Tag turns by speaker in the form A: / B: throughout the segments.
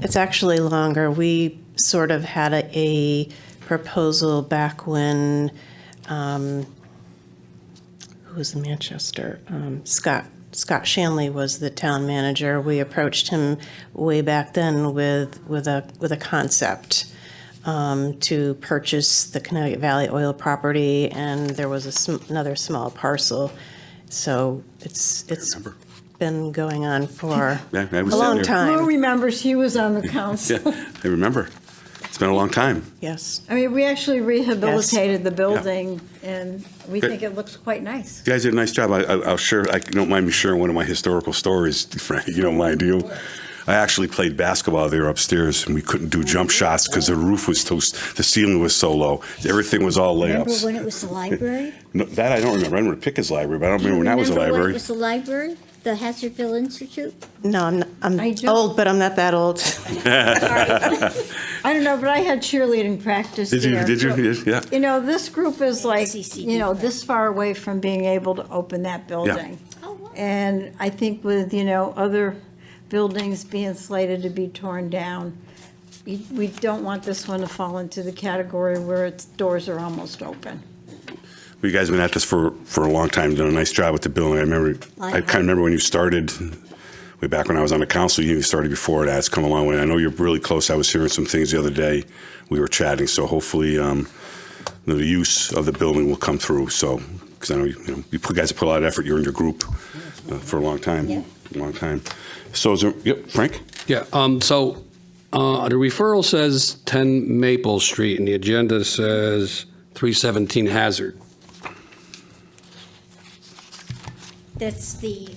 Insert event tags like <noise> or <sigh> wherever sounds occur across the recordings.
A: it's actually longer. We sort of had a, a proposal back when, um, who was in Manchester? Um, Scott, Scott Shanley was the town manager. We approached him way back then with, with a, with a concept um, to purchase the Connecticut Valley Oil property, and there was a sm- another small parcel. So it's, it's
B: remember.
A: been going on for
B: Yeah, I
A: a
B: was sitting
A: long
B: there.
A: time.
C: Lou remembers he was on the council.
B: <laughs> Yeah, I remember. It's been a long time.
A: Yes.
C: I mean, we actually rehabilitated the building, and we
B: Good.
C: think it looks quite nice.
B: You guys did a nice job. I, I, I'll share. I don't mind me sharing one of my historical stories, <laughs> Frank. You don't mind, do you? I actually played basketball there upstairs, and we couldn't do jump shots because the roof was so, the ceiling was so low. Everything was all
D: Remember
B: layups.
D: when it was the library?
B: No, that I don't remember. I remember Pickett's library, but I don't remember when that was a
D: Remember when it
B: library.
D: was the library? The Hazardville Institute?
A: No, I'm, not-
C: I
A: I'm
C: don't-
A: old, but I'm not that old.
C: I don't know, but I had cheerleading practice
B: Did you?
C: there.
B: Did you?
C: so-
B: Yeah.
C: You know, this group is like,
D: CCD.
C: you know, this far away from being able to open that building.
D: Oh, wow.
C: And I think with, you know, other buildings being slated to be torn down, we- we don't want this one to fall into the category where its doors are almost open.
B: You guys have been at this for, for a long time, done a nice job with the building. I remember, I kind of remember when you started, way back when I was on the council, you started before that. It's come a long way. I know you're really close. I was hearing some things the other day. We were chatting, so hopefully, um, the use of the building will come through, so, because I know, you know, you put- guys put a lot of effort, you're in your group uh, for a long time, long time. So is there, yep, Frank?
E: Yeah, um, so, uh, the referral says ten Maple Street and the agenda says three seventeen Hazard.
D: That's the,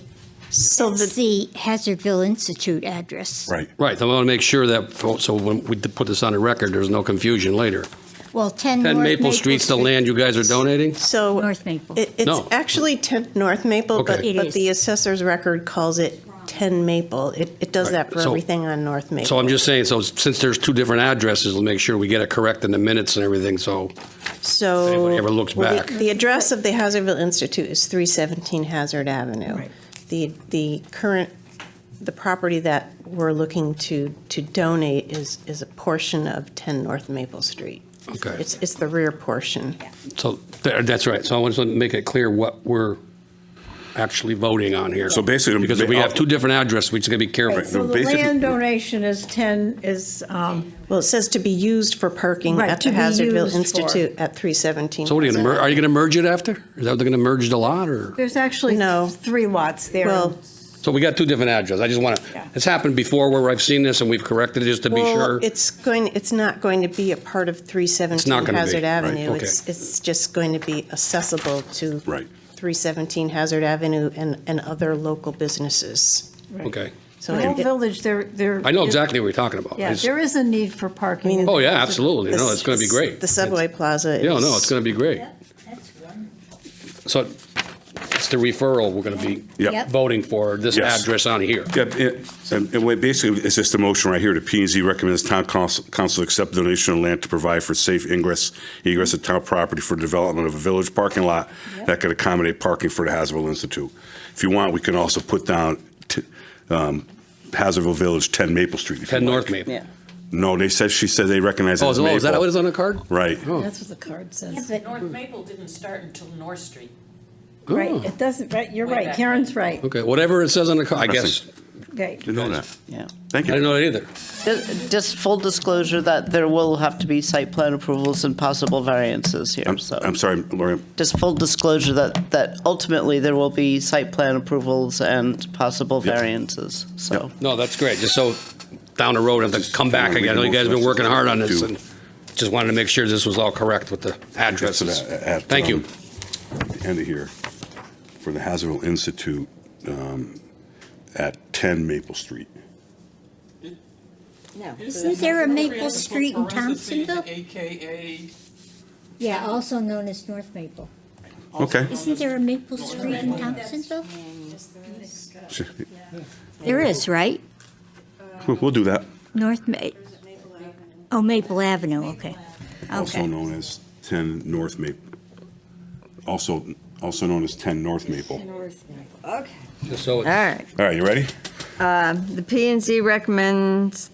A: So
D: that's
A: the,
D: the Hazardville Institute address.
B: Right.
E: Right, I want to make sure that, fo- so when we put this on the record, there's no confusion later.
D: Well, 10 North
E: Ten Maple Street's the land you guys are donating?
A: so.
D: North Maple.
A: It, it's
E: No.
A: actually 10 North Maple, but,
E: Okay.
D: It
A: but
D: is.
A: the assessor's record calls it 10 Maple. It, it does
E: Right.
A: that for
E: So-
A: everything on North Maple.
E: So I'm just saying, so since there's two different addresses, we'll make sure we get it correct in the minutes and everything, so,
A: So.
E: anybody ever looks
A: well, the-
E: back.
A: The address of the Hazardville Institute is 317 Hazard Avenue. The, the current, the property that we're looking to, to donate is, is a portion of 10 North Maple Street.
E: okay.
A: It's, it's the rear portion.
E: So, tha- that's right, so I just want to make it clear what we're actually voting on here.
B: So basically- uh,
E: Because if we have two different addresses, we just got to be careful.
C: So the
B: basically-
C: land donation is 10, is, um,
A: Well, it says to be used for parking
C: Right,
A: at
C: to
A: the
C: be
A: Hazardville
C: used for.
A: Institute at 317.
E: So what are you going to,
A: Hazard.
E: mer- are you going to merge it after? Is that what they're going to merge the lot or?
C: there's actually
A: No.
C: three lots there.
A: Well,
E: So we got two different addresses. I just want
C: Yeah.
E: to, it's happened before where I've seen this and we've corrected it just to be
A: Well,
E: sure.
A: it's going, it's not going to be a part of
E: It's not
A: 317
E: gonna be,
A: Hazard
E: right,
A: Avenue.
E: okay.
A: It's, it's just going to be accessible to
B: Right.
A: 317 Hazard Avenue and, and other local businesses.
E: Okay.
A: So
C: The whole
A: it- it-
C: village, there, there.
E: I know exactly what you're talking about.
C: Yeah,
E: It's-
C: there is a need for parking.
E: Oh, yeah, absolutely. No,
A: the-
E: it's going to be great.
A: The subway plaza is.
E: Yeah, no, it's going to be great. So it's the referral we're going to be
B: Yep. Yep.
E: voting for, this
B: Yes.
E: address on here.
B: Yeah, it- and and what basically, it's just a motion right here to P and Z recommends town council council accept donation of land to provide for safe ingress, egress of town property for development of a village parking lot that could accommodate parking for the Hazardville Institute. If you want, we can also put down t- um, Hazardville Village, 10 Maple Street. if you
E: 10
B: like.
E: North Maple.
B: No, they said, she said they recognize it
E: Oh, is
B: as
E: it- oh, is that
B: Maple.
E: what is Oh, on the card?
B: Right.
C: That's what the card says.
F: North Maple didn't start until North Street.
C: Right, it doesn't, right, you're
F: Way
C: right,
F: back.
C: Karen's right.
E: Okay, whatever it says on the card, I guess.
B: Interesting.
C: Okay.
B: Didn't know that.
G: Yeah.
B: Thank
E: I didn't
B: you.
E: know that either.
G: Ju- Just full disclosure that there will have to be site plan approvals and possible variances here,
B: I'm
G: so.
B: I'm sorry, Lori,
G: Just full disclosure that, that ultimately there will be site plan approvals and possible
B: Yep.
G: variances, so.
E: No, that's great. Just so down the road, I have to come back again. I know you guys have been working hard on this and just wanted to make sure this was all correct with the addresses.
B: Just at- at,
E: Thank
B: um,
E: you.
B: The end of here, for the Hazardville Institute um, at 10 Maple Street.
D: Isn't there a Maple Street in Thompsonville?
H: AKA
D: Yeah, also known as North Maple.
B: Okay.
D: Isn't there a Maple Street in Thompsonville? There is, right?
B: We'll we'll do that.
D: North Ma, oh, Maple Avenue, okay.
B: Also
D: Okay.
B: known as 10 North Maple. Also, also known as 10 North Maple.
E: Just so it's-
I: All right.
B: All right, you ready?
I: The P and Z recommends